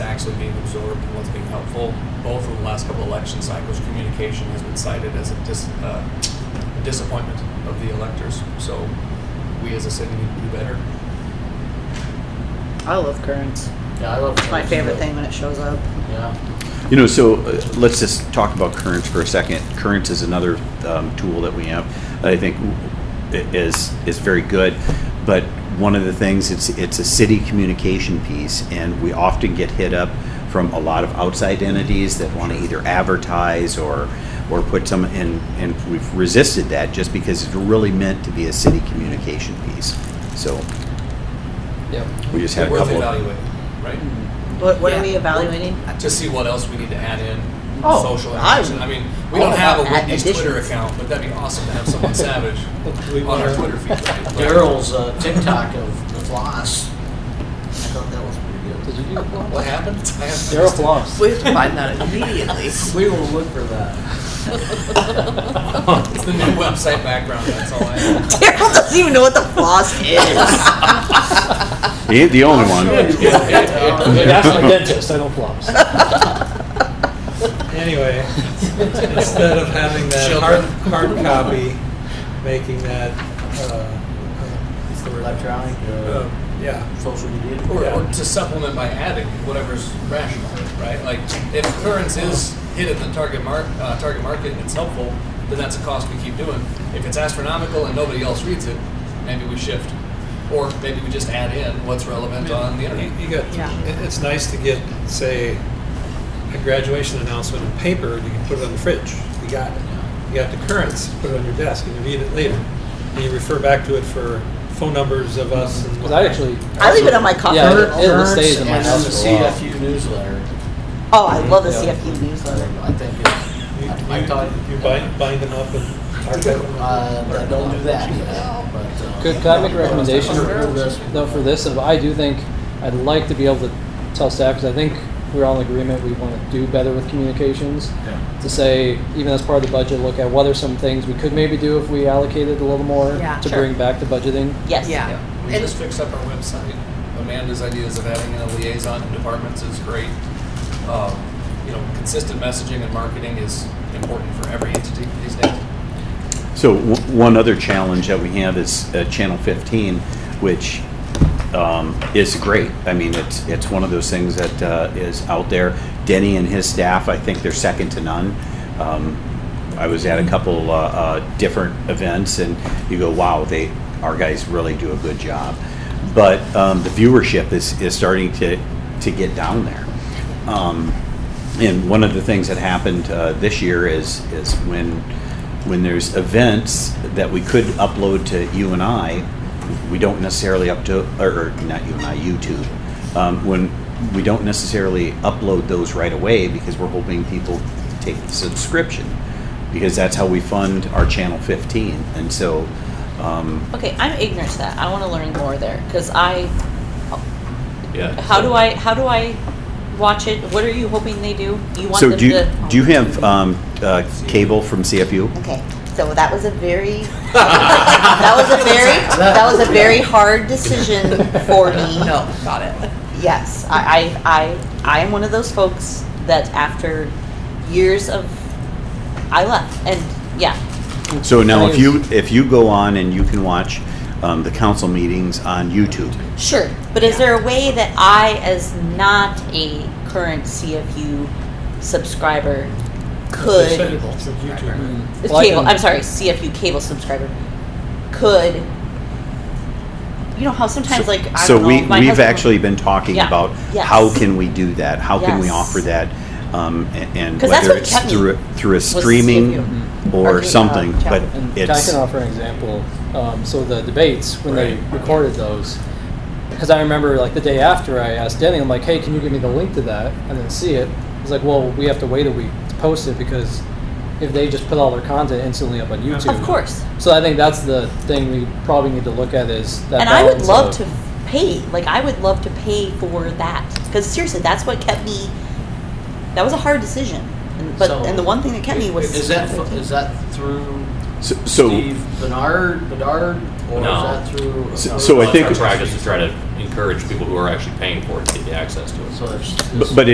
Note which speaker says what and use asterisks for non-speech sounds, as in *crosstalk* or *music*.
Speaker 1: actually being absorbed and what's being helpful. Both of the last couple election cycles, communication has been cited as a dis, uh, disappointment of the electors. So we as a city need to do better.
Speaker 2: I love currents.
Speaker 3: Yeah, I love.
Speaker 2: It's my
Speaker 3: Currents,
Speaker 2: favorite
Speaker 3: but-
Speaker 2: thing when it shows up.
Speaker 3: Yeah,
Speaker 4: You know, so uh, let's just talk about currents for a second. Currents is another um, tool that we have that I think i- is is very good, but one of the things it's it's a city communication piece, and we often get hit up from a lot of outside entities that want to either advertise or or put some in, and we've resisted that just because it's really meant to be a city communication piece. So
Speaker 1: Yep.
Speaker 4: we just had a
Speaker 1: Worth
Speaker 4: couple. Of,
Speaker 1: evaluating, right?
Speaker 2: What, what
Speaker 1: Yeah.
Speaker 2: are we evaluating?
Speaker 1: to see what else we need to add in.
Speaker 2: Oh,
Speaker 1: social interaction. I,
Speaker 2: I-
Speaker 1: mean, we
Speaker 2: all
Speaker 1: don't have a
Speaker 2: about add
Speaker 1: Whitney's Twitter
Speaker 2: additions.
Speaker 1: account, but that'd be awesome to have someone savage on our Twitter feed. Right? Like,
Speaker 3: Daryl's uh, TikTok of the floss. I thought that was pretty good.
Speaker 5: Did you do a flop?
Speaker 1: What happened? I have
Speaker 5: Daryl flops.
Speaker 2: We have to find that *laughs* immediately.
Speaker 3: We will look for that.
Speaker 1: It's the new website background. That's all I
Speaker 6: *laughs*
Speaker 1: have.
Speaker 2: Daryl doesn't even know what the floss is.
Speaker 4: he ain't the only
Speaker 1: *laughs*
Speaker 4: one.
Speaker 5: That's my dentist, I don't flops.
Speaker 7: Anyway, instead of having that hard,
Speaker 1: Children.
Speaker 7: hard copy, making that, uh, uh, what's the word?
Speaker 3: Electronic,
Speaker 7: Uh,
Speaker 3: uh,
Speaker 7: Yeah,
Speaker 3: social media.
Speaker 1: Or, or to supplement by adding whatever's rational, right? Like if currents is hit at the target mark, uh, target market, and it's helpful. Then that's a cost we keep doing. If it's astronomical and nobody else reads it, maybe we shift, or maybe we just add in what's relevant on the
Speaker 7: you
Speaker 1: internet.
Speaker 7: you got,
Speaker 2: Yeah.
Speaker 7: it- it's nice to get, say, a graduation announcement in paper, and you can put it on the fridge. You got it. You got the currents, put it on your desk, and you read it later. And you refer back to it for phone numbers of us and.
Speaker 5: Because I actually.
Speaker 2: I leave it on my coffee
Speaker 5: Yeah,
Speaker 2: table.
Speaker 5: it- it'll stay in my
Speaker 3: And then
Speaker 5: house
Speaker 3: the
Speaker 5: for a while.
Speaker 3: CFU newsletter,
Speaker 2: Oh, I love the
Speaker 5: Yeah.
Speaker 2: CFU newsletter.
Speaker 3: I think it's,
Speaker 7: You-
Speaker 3: I- I thought-
Speaker 7: You you bind, bind them up and archive them.
Speaker 3: *laughs* uh, I don't do that yet, but. uh,
Speaker 5: Could, could I make a recommendation for this, though, for this? And I do think, I'd like to be able to tell staff, because I think we're all in agreement, we want to do better with communications. To say, even as part of the budget, look at what are some things we could maybe do if we allocated a little more
Speaker 6: Yeah.
Speaker 5: to
Speaker 2: Sure.
Speaker 5: bring back to budgeting.
Speaker 2: Yes.
Speaker 6: Yeah.
Speaker 1: Yeah, we
Speaker 6: And-
Speaker 1: just fixed up our website. Amanda's ideas of having a liaison in departments is great. Um, You know, consistent messaging and marketing is important for every entity these days.
Speaker 4: So w- one other challenge that we have is uh, Channel 15, which um, is great. I mean, it's, it's one of those things that uh, is out there. Denny and his staff, I think they're second to none. Um, I was at a couple uh, uh, different events, and you go, wow, they, our guys really do a good job. But um, the viewership is, is starting to, to get down there. Um, and one of the things that happened uh, this year is, is when, when there's events that we could upload to you and I, we don't necessarily up to, or, or not you and I, YouTube. Um, When, we don't necessarily upload those right away because we're hoping people take the subscription. Because that's how we fund our Channel 15. And so, um,
Speaker 6: Okay, I'm ignorant to that. I want to learn more there because I.
Speaker 4: Yeah.
Speaker 6: How do I? How do I watch it? What are you hoping they do? You want
Speaker 4: so
Speaker 6: them
Speaker 4: do you,
Speaker 6: to?
Speaker 4: do you have um, uh, cable from CFU?
Speaker 2: Okay, so that was a
Speaker 4: *laughs*
Speaker 2: very, that was a
Speaker 5: *laughs*
Speaker 2: very,
Speaker 6: *laughs*
Speaker 2: that was a very hard decision for me.
Speaker 4: *laughs*
Speaker 6: No, got it.
Speaker 2: Yes, I, I, I, I am one of those folks that after years of,
Speaker 6: I left, and yeah,
Speaker 4: So now, if
Speaker 5: Thing
Speaker 4: you,
Speaker 5: is-
Speaker 4: if you go on and you can watch um, the council meetings on YouTube,
Speaker 6: sure. But is there a way that I, as not a current CFU subscriber, could
Speaker 7: Cable, YouTube.
Speaker 6: It's
Speaker 5: Well, I
Speaker 6: cable.
Speaker 5: can-
Speaker 6: I'm sorry, CFU cable subscriber could. You know how sometimes like I
Speaker 4: So
Speaker 6: don't
Speaker 4: we,
Speaker 6: know, my
Speaker 4: we've
Speaker 6: husband-
Speaker 4: actually been talking
Speaker 6: Yeah.
Speaker 4: about
Speaker 6: Yes.
Speaker 4: how can we do that? How can we
Speaker 6: Yes.
Speaker 4: offer that? Um, a- And
Speaker 6: 'Cause that's
Speaker 4: whether
Speaker 6: what
Speaker 4: it's
Speaker 6: kept me
Speaker 4: through, a- through a
Speaker 6: CFU.
Speaker 4: streaming
Speaker 2: Or
Speaker 4: or
Speaker 2: the, uh,
Speaker 4: something, but
Speaker 2: channel.
Speaker 5: And I
Speaker 4: it's,
Speaker 5: can offer an example. Um, so the debates when
Speaker 1: Right.
Speaker 5: they recorded those, because I remember like the day after I asked Denny, I'm like, "Hey, can you give me the link to that?" And then see it. He's like, "Well, we have to wait a week to post it because if they just put all their content instantly up on YouTube,
Speaker 6: Of course.
Speaker 5: So I think that's the thing we probably need to look at is that.
Speaker 6: and I would
Speaker 5: balance
Speaker 6: love
Speaker 5: of-
Speaker 6: to pay. Like I would love to pay for that because seriously, that's what kept me. That was a hard decision, and, but
Speaker 3: So-
Speaker 6: and the one thing that kept me was
Speaker 3: Is that, fo- is that through
Speaker 4: so- so,
Speaker 3: Steve Bernard, Bedard, or is
Speaker 8: No.
Speaker 3: that through?
Speaker 4: So- so I
Speaker 8: Well,
Speaker 4: think-
Speaker 8: it's our practice to try to encourage people who are actually paying for it to get the access to it.
Speaker 3: So it's-
Speaker 4: but- but